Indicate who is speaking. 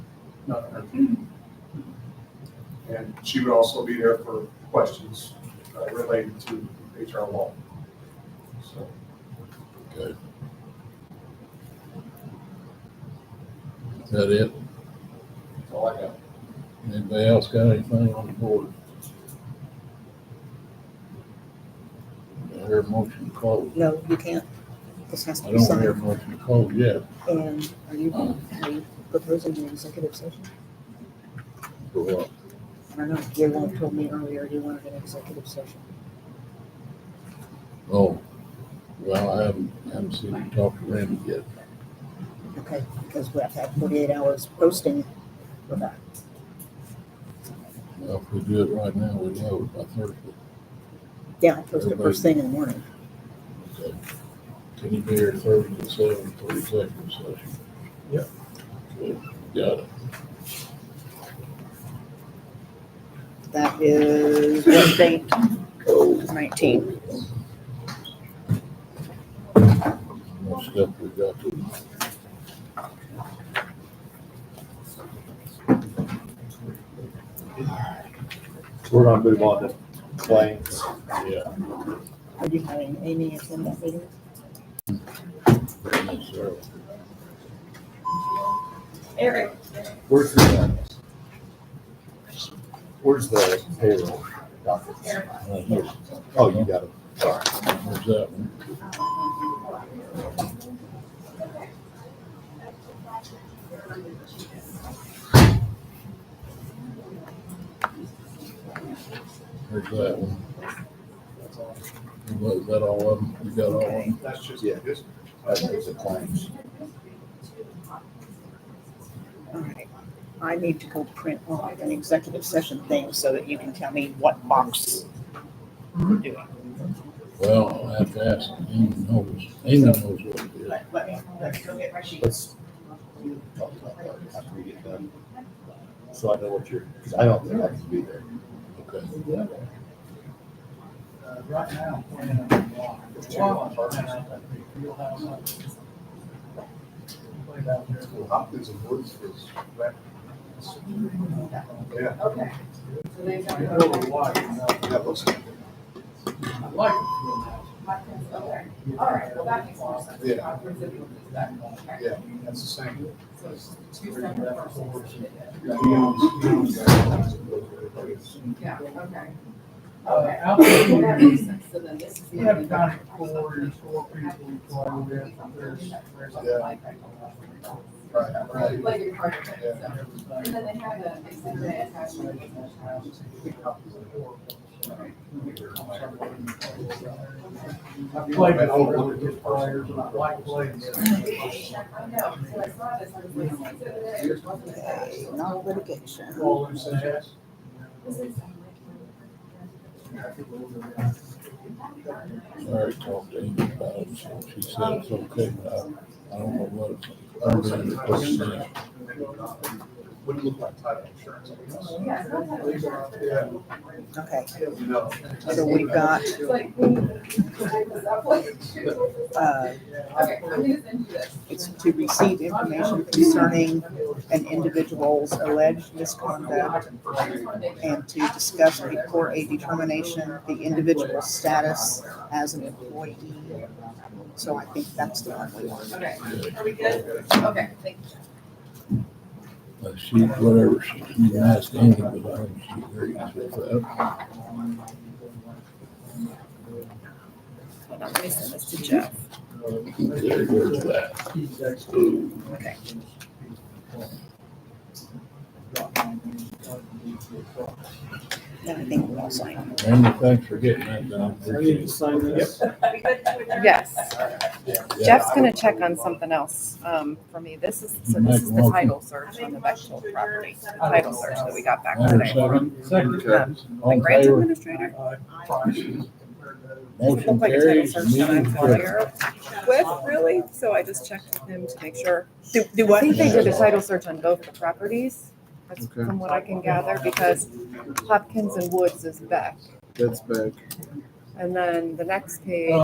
Speaker 1: not her. And she would also be there for questions uh, related to HR law. So,
Speaker 2: Good. Is that it?
Speaker 1: that's all I got.
Speaker 2: Anybody else got anything on the board? Do I hear a motion to close.
Speaker 3: No, you can't. This has
Speaker 2: I
Speaker 3: to be
Speaker 2: don't hear a
Speaker 3: signed.
Speaker 2: motion to close yet.
Speaker 3: And are you, are you proposing an executive session?
Speaker 2: For what?
Speaker 3: I don't know. Your wife told me earlier you wanted an executive session.
Speaker 2: Oh, well, I haven't, haven't seen you talk to Randy yet.
Speaker 3: Okay, because we have to have forty-eight hours posting for that.
Speaker 2: Well, if we do it right now, we'd have it by Thursday.
Speaker 3: Yeah, I post it first thing in the morning.
Speaker 2: Okay. Can you be here Thursday at seven for executive session?
Speaker 1: Yep.
Speaker 2: Good. Got it.
Speaker 3: That is what date? Nineteen.
Speaker 2: What stuff we got to?
Speaker 4: We're gonna move on to claims.
Speaker 2: Yeah.
Speaker 3: Are you having Amy attend that meeting?
Speaker 2: Sarah.
Speaker 5: Eric,
Speaker 4: Where's the, where's the payroll docket?
Speaker 2: Right here.
Speaker 4: Oh, you got it.
Speaker 2: There's that one. There's that one.
Speaker 1: That's all.
Speaker 2: Was that all of them? You got all of them?
Speaker 1: That's just,
Speaker 4: Yeah.
Speaker 1: just
Speaker 4: That's the claims.
Speaker 3: All right. I need to go print off an executive session thing so that you can tell me what box we're doing.
Speaker 2: Well, I have to ask, Amy knows, Amy knows what it is.
Speaker 5: let, let me, let me go get my sheet.
Speaker 4: Let's talk about that after we get done. So I know what you're, because I don't think I can be there.
Speaker 2: Okay.
Speaker 6: uh, Right now, we're in a block. Field house up. Played out there.
Speaker 1: Hopkins and Woods is, yeah,
Speaker 5: Okay. So they don't
Speaker 6: Real
Speaker 5: know.
Speaker 6: wide, you know.
Speaker 1: that looks,
Speaker 6: I like the field house.
Speaker 5: Okay, all right, well, that makes more sense.
Speaker 1: Yeah.
Speaker 5: Upwards of you, that, okay.
Speaker 1: yeah, that's the same.
Speaker 5: So it's two separate parcels. Yeah, okay.
Speaker 6: Uh,
Speaker 5: Okay.
Speaker 6: out
Speaker 5: Well, that
Speaker 6: there,
Speaker 5: makes sense. So then this is.
Speaker 6: we have about four or four people who play with, there's, there's
Speaker 1: Yeah. Right, right.
Speaker 5: Like your part of it, so. And
Speaker 6: everybody.
Speaker 5: then they have a, they said they attached to it.
Speaker 6: I played with older kids players and I like playing. with them.
Speaker 5: I know, so I saw this, I was like, "It's over there, it wasn't attached."
Speaker 3: No litigation.
Speaker 6: All them sets.
Speaker 2: I already talked to Amy about it, so she said it's okay, but I, I don't know what it's. I'm gonna do it.
Speaker 1: Wouldn't look like title insurance, I guess.
Speaker 5: Yeah, it's not that much.
Speaker 1: Yeah.
Speaker 3: Okay,
Speaker 1: No.
Speaker 3: so we've got,
Speaker 5: It's like, I was up like, shoot.
Speaker 3: uh,
Speaker 5: Okay, I'm gonna send you this.
Speaker 3: it's to receive information concerning an individual's alleged misconduct and to discuss and report a determination, the individual's status as an employee. So I think that's the one we want.
Speaker 5: Okay, are we good? Okay, thank you.
Speaker 2: Uh, She, whatever, she, you asked Amy, but I don't, she agrees with that.
Speaker 5: Hold on, let me send this to Jeff.
Speaker 2: There goes that.
Speaker 5: Okay.
Speaker 3: Then I think we're all signed.
Speaker 2: Randy, thanks for getting that done.
Speaker 6: I need to
Speaker 2: Appreciate it.
Speaker 6: sign this.
Speaker 7: Yes,
Speaker 2: Yeah.
Speaker 7: Jeff's gonna check on something else, um, for me. This is, so this is the title search on the Bechtel property, the title search that we got back
Speaker 2: Item
Speaker 7: today.
Speaker 2: seven,
Speaker 6: Second.
Speaker 2: all
Speaker 7: The
Speaker 2: in
Speaker 7: grants
Speaker 2: favor,
Speaker 7: administrator?
Speaker 6: Uh, prices compared to-
Speaker 7: Doesn't
Speaker 2: motion
Speaker 7: look like a title
Speaker 2: carries,
Speaker 7: search that I'm
Speaker 2: meeting
Speaker 7: familiar
Speaker 2: adjourned.
Speaker 7: With, really, so I just checked with him to make sure.
Speaker 3: Do, do
Speaker 7: I
Speaker 3: what?
Speaker 7: think they did a title search on both the properties, that's
Speaker 8: Okay.
Speaker 7: from what I can gather, because Hopkins and Woods is Beck.
Speaker 8: That's back.
Speaker 7: And then the next page